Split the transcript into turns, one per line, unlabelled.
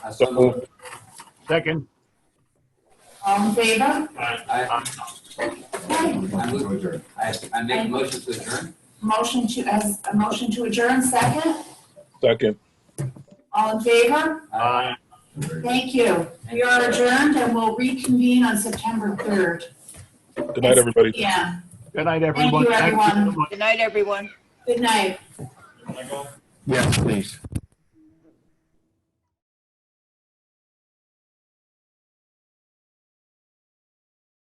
I so moved.
Second.
All in favor?
I, I move, I, I make a motion to adjourn.
Motion to, as, a motion to adjourn, second?
Second.
All in favor?
Aye.
Thank you. We are adjourned and we'll reconvene on September 3rd.
Good night, everybody.
Yeah,
Good night, everyone.
everyone.
so much.
Good night, everyone.
good night.
Yes, please.